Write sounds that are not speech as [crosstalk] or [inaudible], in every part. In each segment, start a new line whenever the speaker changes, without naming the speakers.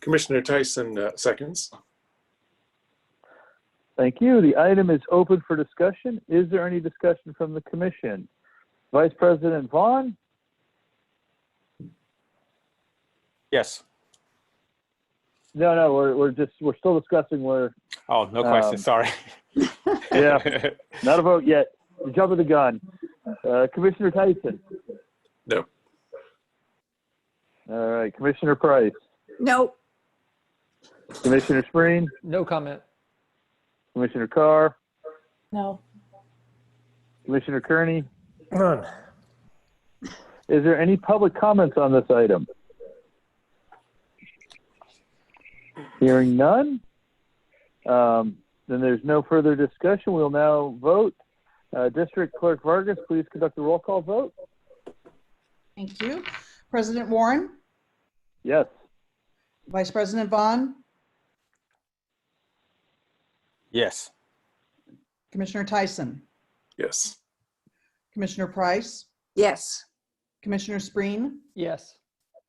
Commissioner Tyson uh, seconds.
Thank you. The item is open for discussion. Is there any discussion from the commission? Vice President Vaughn,
Yes.
no, no, we're, we're just, we're still discussing, we're,
Oh, no question.
Um,
Sorry.
yeah, [laughs] not a vote yet. You're Jumping the gun. Uh, Commissioner Tyson?
No.
All right, Commissioner Price,
No,
Commissioner Spreen,
No comment.
Commissioner Carr,
No.
Commissioner Kearney? None. Is there any public comments on this item? Hearing none, um, then there's no further discussion. We'll now vote. Uh, District Clerk Vargas, please conduct a roll call vote.
Thank you. President Warren,
Yes.
Vice President Vaughn,
Yes.
Commissioner Tyson,
Yes.
Commissioner Price,
yes,
Commissioner Spreen,
Yes.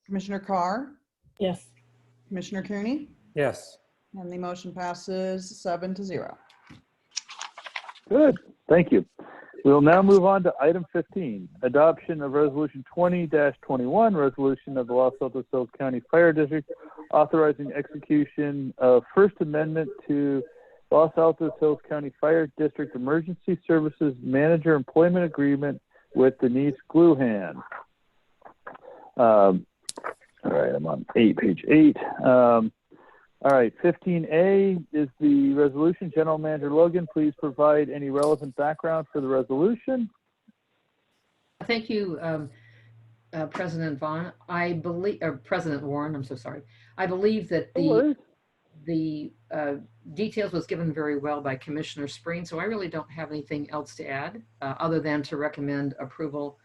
Commissioner Carr,
Yes.
Commissioner Kearney,
Yes.
and the motion passes seven to zero.
Good, thank you. We'll now move on to item 15, adoption of resolution 20-21, resolution of the Los Altos Hills County Fire District authorizing execution of First Amendment to Los Altos Hills County Fire District Emergency Services Manager Employment Agreement with Denise Gluhan. Um, All right, I'm on eight, page eight. Um, all right, fifteen A is the resolution. General Manager Logan, please provide any relevant background for the resolution.
Thank you, um, uh, President Vaughn. I believe, or President Warren, I'm so sorry. I believe that
Oh,
the, the uh, details was given very well by Commissioner Spreen, so I really don't have anything else to add, uh, other than to recommend approval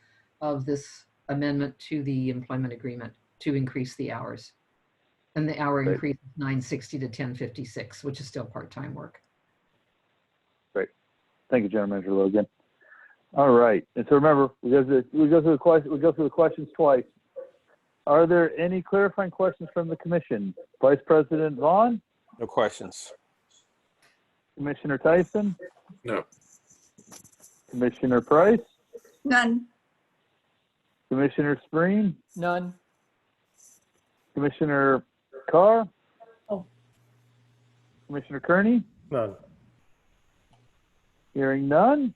of this amendment to the employment agreement to increase the hours. And the hour
Great.
increase is 960 to 1056, which is still part-time work.
Thank you, General Manager Logan. All right, and so remember, we go through, we go through the question, we go through the questions twice. Are there any clarifying questions from the commission? Vice President Vaughn,
No questions.
Commissioner Tyson,
No.
Commissioner Price,
none,
Commissioner Spreen,
None.
Commissioner Carr?
Oh.
Commissioner Kearney?
None.
Hearing none,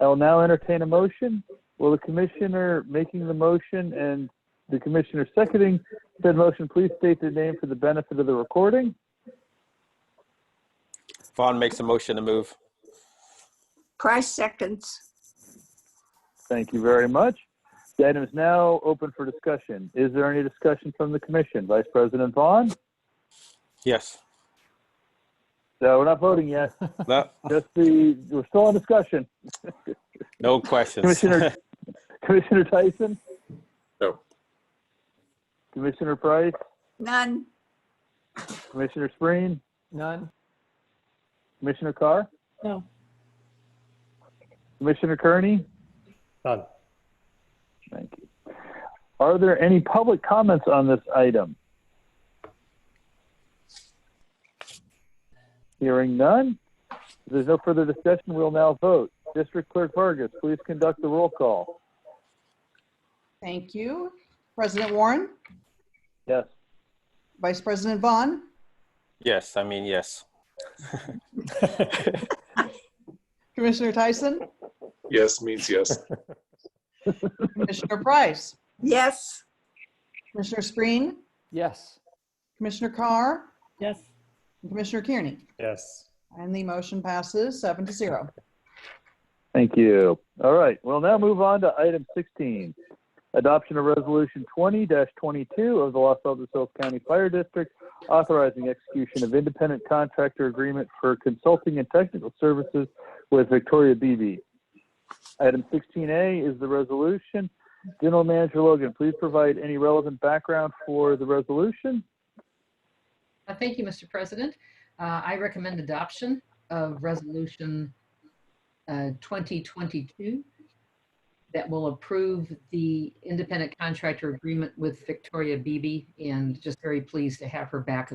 I will now entertain a motion. Will the commissioner making the motion and the commissioner seconding said motion please state their name for the benefit of the recording?
Vaughn makes a motion to move.
Price seconds,
Thank you very much. The item is now open for discussion. Is there any discussion from the commission? Vice President Vaughn?
Yes.
No, we're not voting yet.
No,
Just the, we're still on discussion.
no questions. [laughs]
Commissioner, Commissioner Tyson?
No.
Commissioner Price?
none,
Commissioner Spreen?
None.
Commissioner Carr?
No.
Commissioner Kearney?
None.
Thank you. Are there any public comments on this item? Hearing none. If there's no further discussion, we'll now vote. District Clerk Vargas, please conduct the roll call.
Thank you. President Warren,
Yes.
Vice President Vaughn,
Yes, I mean, yes.
Commissioner Tyson,
Yes means yes.
Commissioner Price,
yes.
Commissioner Spreen,
Yes.
Commissioner Carr,
Yes.
and Commissioner Kearney,
Yes.
and the motion passes seven to zero.
Thank you. All right, we'll now move on to item 16. Adoption of Resolution 20-22 of the Los Altos Hills County Fire District authorizing execution of independent contractor agreement for consulting and technical services with Victoria BB. Item 16A is the resolution. General Manager Logan, please provide any relevant background for the resolution.
Uh, Thank you, Mr. President. Uh, I recommend adoption of Resolution uh, 2022 that will approve the independent contractor agreement with Victoria Beebe, and just very pleased to have her back